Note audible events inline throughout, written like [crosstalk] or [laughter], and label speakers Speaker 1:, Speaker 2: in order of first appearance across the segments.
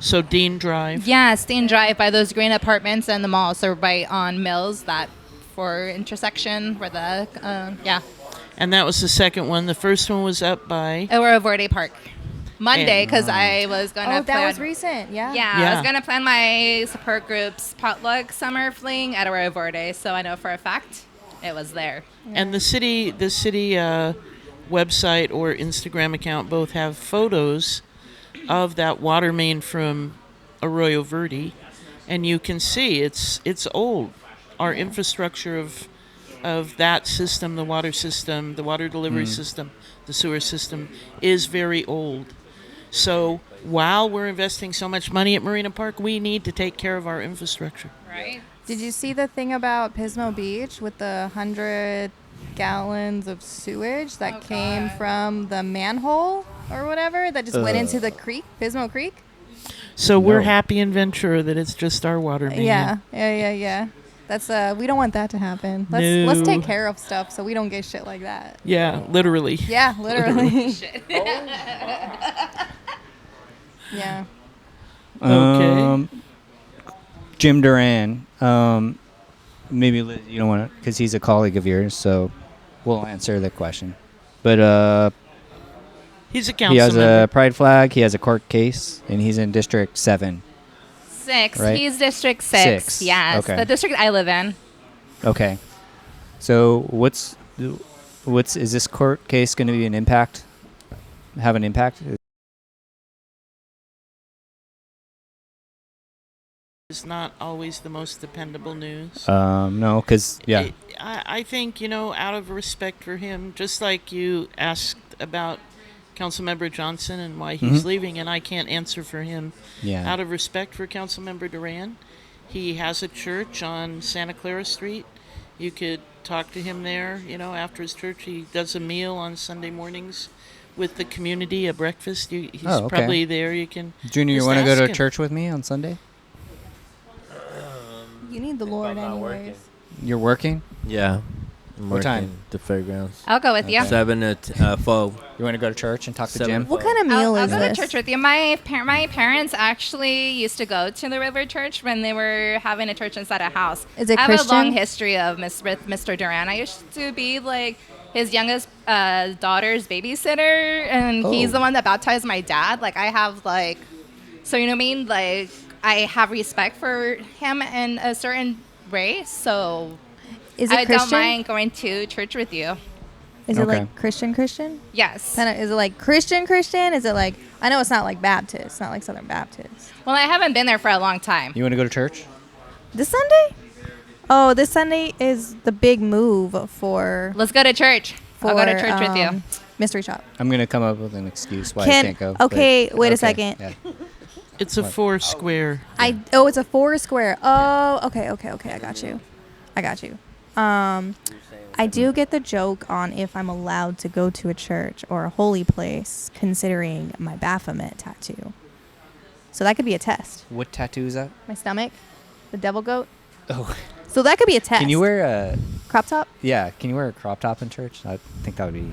Speaker 1: So Dean Drive.
Speaker 2: Yeah, Steen Drive by those green apartments and the mall. So right on Mills, that for intersection where the uh, yeah,
Speaker 1: And that was the second one. The first one was up by.
Speaker 2: Aurora Verde Park. Monday because I was going to
Speaker 3: Oh, that was recent. Yeah.
Speaker 2: Yeah, I
Speaker 1: Yeah.
Speaker 2: was gonna plan my support group's potluck summer fling at Aurora Verde, so I know for a fact it was there.
Speaker 1: And the city, the city uh, website or Instagram account both have photos of that water main from Arroyo Verde, and you can see it's it's old. Our infrastructure of of that system, the water system, the water delivery system, the sewer system, is very old. So while we're investing so much money at Marina Park, we need to take care of our infrastructure.
Speaker 2: Right?
Speaker 3: Did you see the thing about Pismo Beach with the hundred gallons of sewage that
Speaker 2: Oh,
Speaker 3: came
Speaker 2: God.
Speaker 3: from the manhole or whatever that just went into the creek, Pismo Creek?
Speaker 1: So we're
Speaker 4: No.
Speaker 1: happy in Ventura that it's just our water main.
Speaker 3: Yeah, yeah, yeah, yeah. That's uh, we don't want that to happen. Let's let's
Speaker 1: No.
Speaker 3: take care of stuff so we don't get shit like that.
Speaker 1: Yeah, literally.
Speaker 2: [laughs]
Speaker 3: Yeah, literally. [laughs] yeah.
Speaker 1: Okay.
Speaker 4: Um, Jim Duran. Um, maybe Liz, you don't want to, because he's a colleague of yours, so we'll answer the question. But uh,
Speaker 1: He's a
Speaker 4: he
Speaker 1: council
Speaker 4: has
Speaker 1: member.
Speaker 4: a pride flag, he has a court case, and he's in District 7.
Speaker 2: Six.
Speaker 4: Right.
Speaker 2: He's district six.
Speaker 4: Six.
Speaker 2: Yes.
Speaker 4: Okay.
Speaker 2: The district I live in.
Speaker 4: Okay. So what's what's is this court case going to be an impact? Have an impact?
Speaker 1: It's not always the most dependable news.
Speaker 4: Um, no, because yeah,
Speaker 1: It- I, I think, you know, out of respect for him, just like you asked about Councilmember Johnson and why he's
Speaker 4: Mhm.
Speaker 1: leaving, and I can't answer for him.
Speaker 4: yeah.
Speaker 1: Out of respect for Councilmember Duran, he has a church on Santa Clara Street. You could talk to him there, you know, after his church. He does a meal on Sunday mornings with the community, a breakfast. You, he's
Speaker 4: Oh, okay.
Speaker 1: probably there. You can.
Speaker 4: Junior, you
Speaker 1: just
Speaker 4: want to go
Speaker 1: ask
Speaker 4: to
Speaker 1: him.
Speaker 4: church with me on Sunday?
Speaker 3: You need the Lord anyways.
Speaker 4: You're working.
Speaker 5: Yeah. I'm
Speaker 4: What time?
Speaker 5: working The fairgrounds.
Speaker 2: I'll go with you.
Speaker 5: Seven to t- uh, four.
Speaker 4: You want to go to church and talk to
Speaker 5: Seven.
Speaker 4: Jim?
Speaker 3: What kind of meal
Speaker 2: I'll, I'll
Speaker 3: is
Speaker 2: go
Speaker 3: this?
Speaker 2: to church with you. My par- my parents actually used to go to the River Church when they were having a church inside a house.
Speaker 3: Is it
Speaker 2: I have a long
Speaker 3: Christian?
Speaker 2: history of Miss with Mr. Duran. I used to be like his youngest uh, daughter's babysitter, and he's
Speaker 4: Oh.
Speaker 2: the one that baptized my dad. Like I have like, so you know what I mean. Like I have respect for him in a certain way. So
Speaker 3: Is it
Speaker 2: I
Speaker 3: Christian?
Speaker 2: don't mind going to church with you.
Speaker 3: Is it
Speaker 4: Okay.
Speaker 3: like Christian Christian?
Speaker 2: Yes.
Speaker 3: Kind of, is it like Christian Christian? Is it like I know it's not like Baptist, not like Southern Baptist.
Speaker 2: Well, I haven't been there for a long time.
Speaker 4: You want to go to church?
Speaker 3: This Sunday? Oh, this Sunday is the big move for.
Speaker 2: Let's go to church.
Speaker 3: for
Speaker 2: I'll go to church with you.
Speaker 3: um, Mystery shop.
Speaker 4: I'm gonna come up with an excuse why
Speaker 3: Can-
Speaker 4: I can't go.
Speaker 3: okay,
Speaker 4: but-
Speaker 3: wait a second.
Speaker 4: yeah.
Speaker 1: It's a four square.
Speaker 3: I oh, it's a four square. Oh, okay, okay, okay. I got you. I got you. Um, I do get the joke on if I'm allowed to go to a church or a holy place, considering my Baphomet tattoo. So that could be a test.
Speaker 4: What tattoo is that?
Speaker 3: My stomach, the devil goat.
Speaker 4: Oh,
Speaker 3: So that could be a test.
Speaker 4: can you wear a
Speaker 3: crop top?
Speaker 4: yeah? Can you wear a crop top in church? I think that would be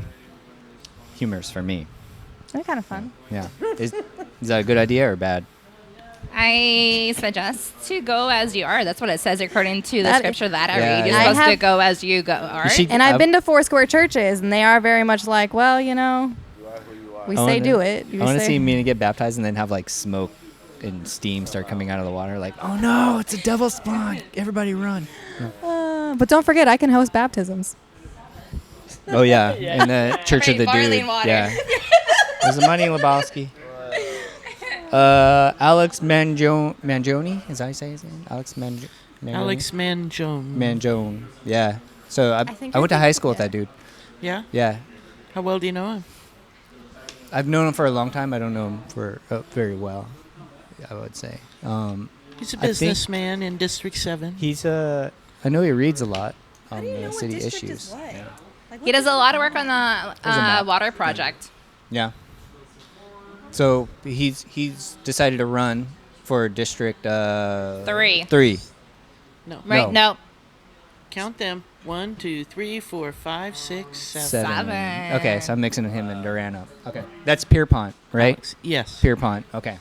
Speaker 4: humorous for me.
Speaker 3: That'd be kind of fun. [laughs]
Speaker 4: Yeah. Is, is that a good idea or bad?
Speaker 2: I suggest to go as you are. That's what it says according to the
Speaker 3: That-
Speaker 2: scripture that I
Speaker 4: Yeah,
Speaker 2: read. You're
Speaker 4: yeah. I
Speaker 2: supposed to
Speaker 3: have-
Speaker 2: go as you go are.
Speaker 4: should-
Speaker 3: And I've
Speaker 4: I've-
Speaker 3: been to four square churches, and they are very much like, well, you know, we
Speaker 4: I
Speaker 3: say
Speaker 4: wanna-
Speaker 3: do it.
Speaker 4: I
Speaker 3: You
Speaker 4: want to
Speaker 3: say-
Speaker 4: see Mina get baptized and then have like smoke and steam start coming out of the water. Like, oh no, it's a devil spawn! Everybody run!
Speaker 3: Uh, but don't forget, I can host baptisms. [laughs]
Speaker 4: Oh yeah, in the Church of
Speaker 2: Right,
Speaker 4: the
Speaker 2: barley
Speaker 4: Dude.
Speaker 2: and water.
Speaker 4: Yeah. Was the money Lebowski? Uh, Alex Manjo- Mangione, is that how you say his name? Alex Manjo- Mangione.
Speaker 1: Alex Manjone.
Speaker 4: Mangione. Yeah. So I, I,
Speaker 3: think I
Speaker 4: went to
Speaker 3: think-
Speaker 4: high school with
Speaker 3: yeah.
Speaker 4: that dude.
Speaker 1: Yeah.
Speaker 4: Yeah.
Speaker 1: How well do you know him?
Speaker 4: I've known him for a long time. I don't know him for uh, very well. I would say. Um,
Speaker 1: He's a
Speaker 4: I think-
Speaker 1: businessman in District Seven.
Speaker 4: he's Uh, I know he reads a lot on
Speaker 3: do you
Speaker 4: the
Speaker 3: know what
Speaker 4: city
Speaker 3: district is
Speaker 4: issues.
Speaker 3: what?
Speaker 4: Yeah.
Speaker 2: he does a lot of work on the
Speaker 4: There's a
Speaker 2: uh,
Speaker 4: map.
Speaker 2: water project.
Speaker 4: Yeah. So he's he's decided to run for district uh,
Speaker 2: Three.
Speaker 4: Three.
Speaker 1: No.
Speaker 2: Right?
Speaker 4: No.
Speaker 2: No.
Speaker 1: Count them. One, two, three, four, five, six, seven.
Speaker 4: Okay, so I'm mixing him and Duran up. Okay, that's Pierpont, right?
Speaker 1: Yes.
Speaker 4: Pierpont. Okay.